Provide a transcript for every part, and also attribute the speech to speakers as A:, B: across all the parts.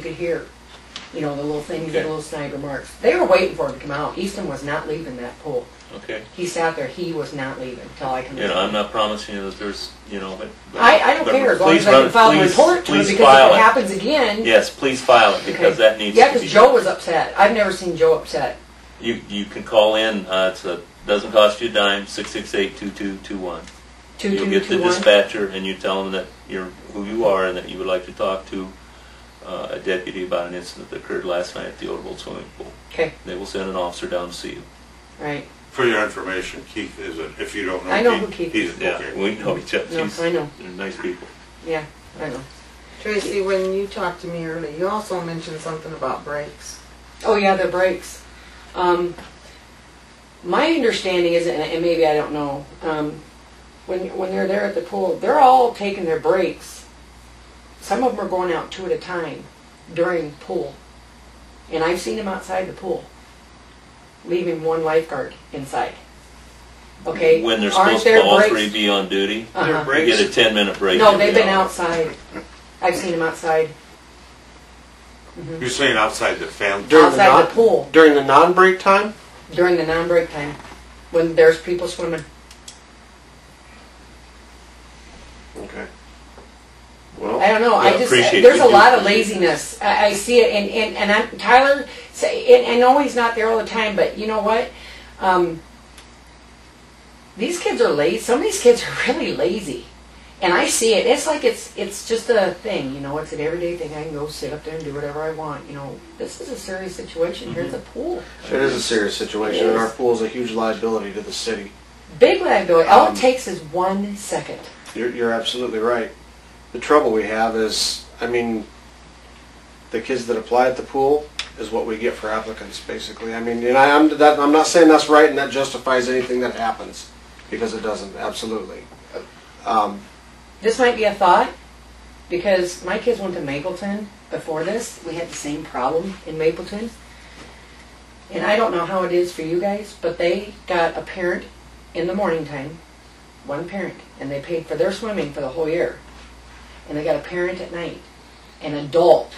A: could hear, you know, the little things, the
B: Okay.
A: little snide remarks. They were waiting for him to come out. Easton was not leaving that pool.
B: Okay.
A: He sat there, he was not leaving until I come
B: You
A: in.
B: know, I'm not promising you that there's, you know, but. but-
A: I, I don't
B: but
A: care, as long
B: please
A: as I
B: run-
A: can file a
B: please-
A: report to him,
B: please
A: because if
B: file
A: it
B: it.
A: happens again.
B: Yes, please file it because
A: okay.
B: that needs to be.
A: Yeah, because Joe was upset. I've never seen Joe upset.
B: You, you can call in, uh, it's a, doesn't cost you a dime, six six eight two two two one.
A: Two,
B: You'll
A: two,
B: get the
A: two, one.
B: dispatcher and you tell them that you're, who you are and that you would like to talk to, uh, a deputy about an incident that occurred last night at the Old Swimming Pool.
A: Okay,
B: They will send an officer down to see you.
A: right.
C: For your information, Keith is a, if you don't know.
A: I know who Keith
C: He's,
B: Yeah,
C: okay.
B: we know each other.
A: No,
B: He's-
A: I know.
B: They're nice people.
A: Yeah, I know.
D: Tracy, when you talked to me earlier, you also mentioned something about brakes.
A: Oh, yeah, the brakes. Um, my understanding is, and and maybe I don't know, um, when, when they're there at the pool, they're all taking their breaks. Some of them are going out two at a time during pool. And I've seen them outside the pool, leaving one lifeguard inside. Okay?
B: When they're
A: Aren't
B: supposed
A: there
B: to all
A: breaks-
B: three be on duty,
A: Uh-huh.
B: you get a ten minute break.
A: No,
B: every
A: they've been
B: hour.
A: outside. I've seen them outside.
C: You're saying outside the family.
E: During the
A: outside
E: non-
A: the pool
E: During the non-break time?
A: during the non-break time when there's people swimming.
E: Okay. Well,
A: I don't know.
B: Yeah,
A: I just
B: appreciate
A: there's
B: you
A: a
B: do
A: lot of
B: appreciate it.
A: laziness. I, I see it, and and and I'm, Tyler. Say, and I know he's not there all the time, but you know what? Um, these kids are lazy. Some of these kids are really lazy, and I see it. It's like it's it's just a thing, you know. It's an everyday thing. I can go sit up there and do whatever I want. You know, this is a serious situation. Here's
B: Mm-hmm.
A: a pool.
E: it is a serious situation, and our pool is a huge liability to the city.
A: Big liability. All
E: Um,
A: it takes is one second.
E: You're, you're absolutely right. The trouble we have is, I mean, the kids that apply at the pool is what we get for applicants, basically. I mean, and I, I'm, that, I'm not saying that's right and that justifies anything that happens, because it doesn't, absolutely. Um,
A: This might be a thought because my kids went to Mapleton before this. We had the same problem in Mapleton. And I don't know how it is for you guys, but they got a parent in the morning time, one parent, and they paid for their swimming for the whole year. And they got a parent at night, an adult,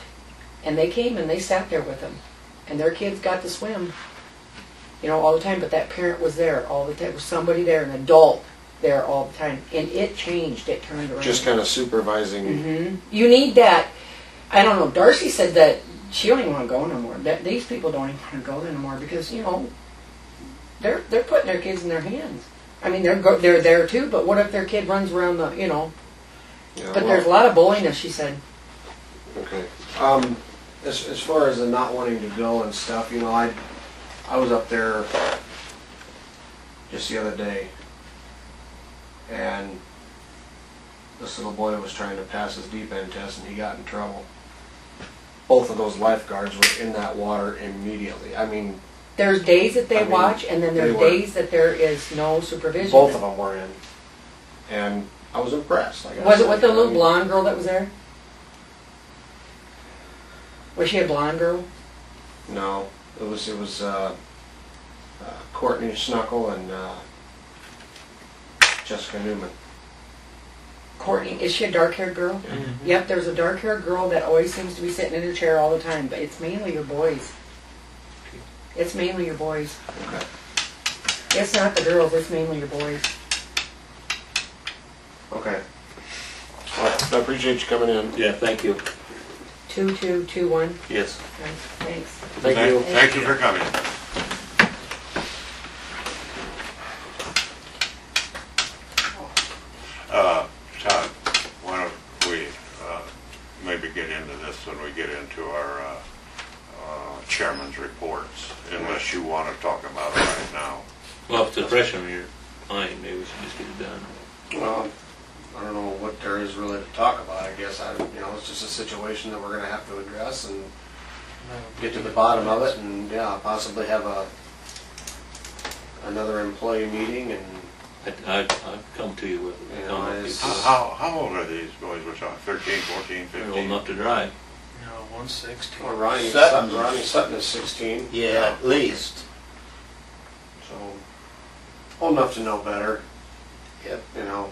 A: and they came and they sat there with them. And their kids got to swim, you know, all the time, but that parent was there all the time. There was somebody there, an adult there all the time. And it changed, it turned around.
E: just kind of supervising.
A: hmm You need that. I don't know. Darcy said that she don't even want to go no more. That these people don't even want to go there no more because you know they're they're putting their kids in their hands. I mean they're go, they're there too, but what if their kid runs around the you know?
E: you know,
A: But there's a lot of bulliness. She said.
E: Okay. Um, as, as far as the not wanting to go and stuff, you know, I, I was up there just the other day, and this little boy was trying to pass his deep end test, and he got in trouble. Both of those lifeguards were in that water immediately. I mean,
A: There's days that they
E: I mean,
A: watch, and then
E: they
A: there's
E: were-
A: days that there is no supervision.
E: both of them were in, and I was impressed. Like I
A: Was it
E: said,
A: with the
E: I
A: little
E: mean,
A: blonde girl that was there? Was she a blonde girl?
E: No, it was it was uh, uh, Courtney Snuckle and uh, Jessica Newman.
A: Courtney, is she a dark haired girl? Yep, there's a dark haired girl that always seems to be sitting in her chair all the time, but it's mainly your boys. It's mainly your boys.
E: Okay.
A: It's not the girls, it's mainly your boys.
E: Okay. Well, I appreciate you coming in.
B: Yeah, thank you.
A: Two, two, two, one.
B: Yes.
A: Okay, Thanks.
E: Thank you.
C: Thank you for coming. Uh, Todd, why don't we, uh, maybe get into this when we get into our, uh, uh, chairman's reports, unless you wanna talk about it right now.
B: Well, if it's a fresh on your mind, maybe we should just get it done.
E: Well, I don't know what there is really to talk about. I guess I, you know, it's just a situation that we're going to have to address and get to the bottom of it, and yeah, possibly have a another employee meeting and
B: I, I, I've come to you with
E: Yeah,
B: it. Come up
E: it's-
B: with
C: How- How, how old are these boys we're talking, thirteen, fourteen,
B: it. You're Old
C: fifteen?
B: enough to drive.
F: No, one sixty.
E: well, Ronnie
G: Sutton.
E: Sutton. Ronnie Sutton is 16.
G: Yeah, at least.
E: So, well enough to know better.
G: Yep.
E: You know,